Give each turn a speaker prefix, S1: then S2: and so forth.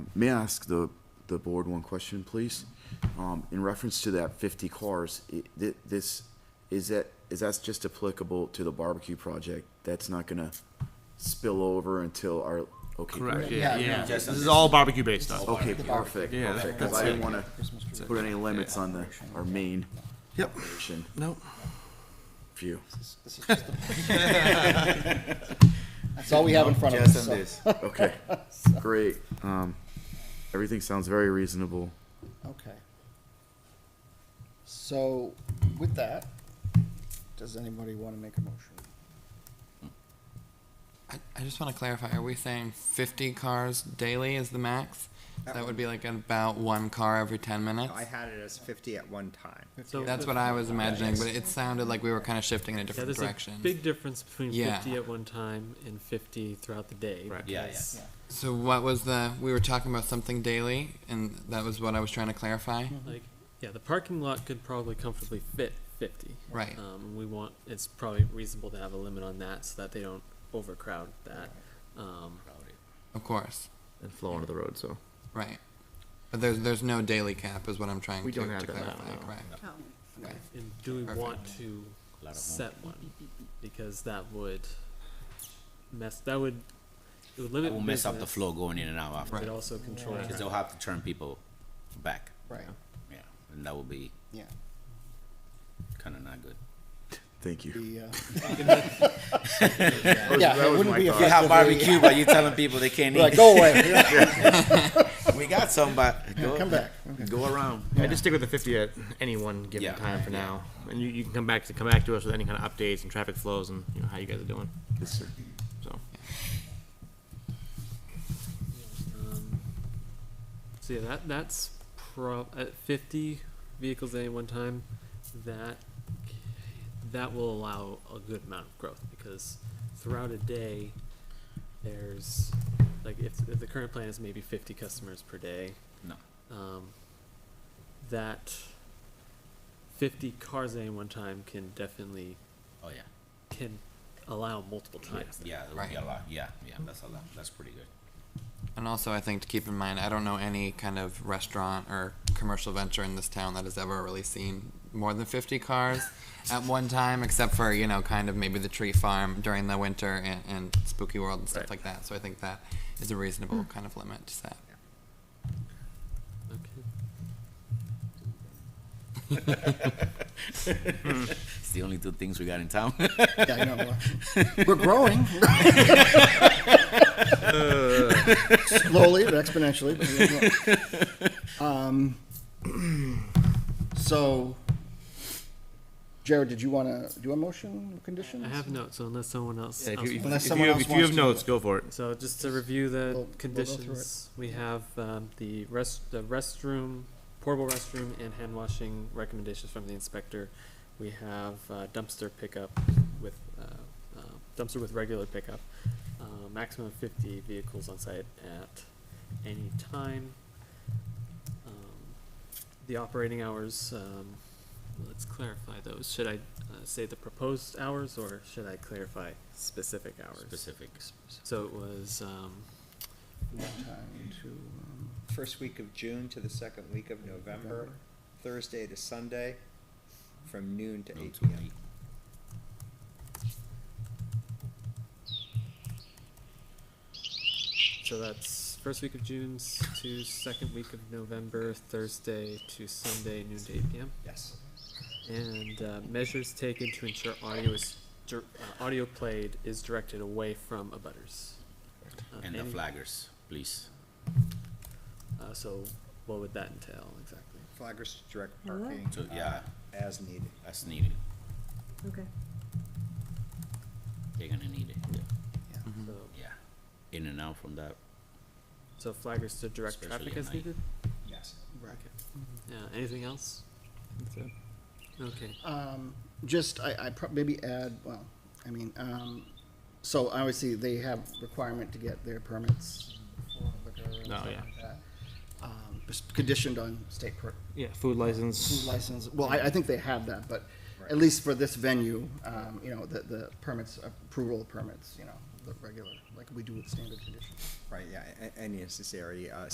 S1: May I ask the, the board one question, please? Um, in reference to that fifty cars, i- thi- this, is that, is that's just applicable to the barbecue project? That's not gonna spill over until our, okay.
S2: Correct,
S1: great.
S2: yeah,
S3: Yeah,
S2: yeah.
S3: yeah.
S2: This is all barbecue based stuff.
S1: Okay, perfect,
S2: Yeah,
S1: perfect,
S2: that's
S1: cause I didn't
S2: it.
S1: wanna put any limits on the, our main
S2: Yep.
S1: operation
S2: Nope.
S1: view.
S3: That's all we have in front of
S4: Just
S3: us.
S4: on
S3: so-
S4: this.
S1: Okay, great, um, everything sounds very reasonable.
S3: Okay. So with that, does anybody want to make a motion?
S5: I, I just want to clarify, are we saying fifty cars daily is the max? That would be like about one car every ten minutes?
S4: I had it as fifty at one time.
S5: That's what I was imagining, but it sounded like we were kind of shifting in a
S6: Yeah,
S5: different
S6: there's a
S5: direction.
S6: big difference between
S5: Yeah.
S6: fifty at one time and fifty throughout the day.
S2: Right.
S4: Yeah,
S6: because
S5: So what was the, we were talking about something daily, and that was what I was trying to clarify?
S7: Mm-hmm.
S6: Like, yeah, the parking lot could probably comfortably fit fifty.
S5: Right.
S6: Um, we want, it's probably reasonable to have a limit on that so that they don't overcrowd that. Um,
S5: Of course,
S7: and flow onto the road. So
S5: right. But there's, there's no daily cap is what I'm trying
S7: We
S5: to,
S7: don't
S5: to
S7: have that now,
S5: clarify,
S7: no.
S5: correct? Okay.
S6: and do we
S5: Perfect.
S6: want to set one? Because that would mess, that would, it would
S8: It
S6: limit
S8: will mess up the
S6: business,
S8: flow going in and out after,
S6: It
S5: Right.
S6: also controls.
S8: because they'll have to turn people back,
S3: Right,
S8: yeah, and that will be
S3: yeah.
S8: kinda not good.
S1: Thank you.
S3: The, uh, Yeah, it wouldn't be
S8: You have
S3: effectively.
S8: barbecue, but you're telling people they can't
S3: Like,
S8: eat.
S3: go away,
S8: We got some, but go,
S3: come back.
S8: go around.
S2: I just stick with the fifty at any one given
S8: Yeah.
S2: time for now, and you, you can come back to come back to us with any kind of updates and traffic flows and you know how you guys are doing.
S1: Yes, sir.
S2: So
S6: Um, So yeah, that that's prob at fifty vehicles at any one time, that that will allow a good amount of growth because throughout a day, there's like if, if the current plan is maybe fifty customers per day.
S8: No.
S6: Um, that fifty cars at any one time can definitely
S8: Oh, yeah,
S6: can allow multiple times.
S8: yeah, that would be a lot, yeah, yeah, that's a lot, that's pretty good.
S5: And also, I think to keep in mind, I don't know any kind of restaurant or commercial venture in this town that has ever really seen more than 50 cars at one time, except for, you know, kind of maybe the tree farm during the winter and, and spooky world and stuff
S2: Right.
S5: like that. So I think that is a reasonable kind of limit to set.
S6: Okay.
S8: It's the only two things we got in town.
S3: Yeah, I know. uh, We're growing. Slowly, but exponentially. but we're growing. Um, So, Jared, did you want to, do a motion conditions?
S6: I have notes, so unless someone else.
S2: yeah, if
S6: else
S2: you, if,
S3: Unless
S2: if
S3: someone
S2: you,
S3: else
S2: if you
S3: wants to
S2: have
S3: do
S2: notes, go for it.
S6: So just to review
S3: We'll-
S6: the
S3: we'll go through it.
S6: conditions, we have, um, the rest, the restroom, portable restroom and hand washing recommendations from the inspector. We have uh, dumpster pickup with, uh, uh, dumpster with regular pickup, uh, maximum of fifty vehicles on site at any time. Um, The operating hours, um, let's clarify those. Should I, uh, say the proposed hours or should I clarify specific hours?
S8: Specifics.
S6: So it was, um,
S3: Time to, um,
S4: First week of June to the second week of November,
S3: November.
S4: Thursday to Sunday, from noon to eight
S8: Notes would
S4: PM.
S8: be-
S6: so that's first week of June s- to second week of November, Thursday to Sunday, noon to eight PM.
S4: Yes.
S6: And, uh, measures taken to ensure audio is, dir- uh, audio played is directed away from abutters. Uh,
S8: And the
S6: any-
S8: flaggers, please.
S6: Uh, so what would that entail exactly?
S4: Flaggers to direct parking,
S8: So,
S4: uh,
S8: yeah,
S4: as needed.
S8: that's needed.
S9: Okay.
S8: They're gonna need it, Mm-hmm.
S6: So,
S8: yeah. In and out from that,
S6: so flaggers to direct
S8: Especially
S6: traffic
S8: at
S6: as
S8: night.
S6: needed?
S4: Yes.
S3: right.
S6: Yeah, anything else? Okay.
S3: Um, just, I, I prob, maybe add, well, I mean, um, so obviously they have requirement to get their permits. for liquor
S6: Oh,
S3: and
S2: No,
S3: stuff
S2: yeah.
S3: like that. Um, just conditioned on state per,
S2: Yeah, food license.
S3: food license, well, I, I think they have that, but at
S4: Right.
S3: least for this venue, um, you know, the, the permits, approval permits, you know, the regular, like we do with standard conditions.
S4: Right, yeah, a- a- any necessary, uh,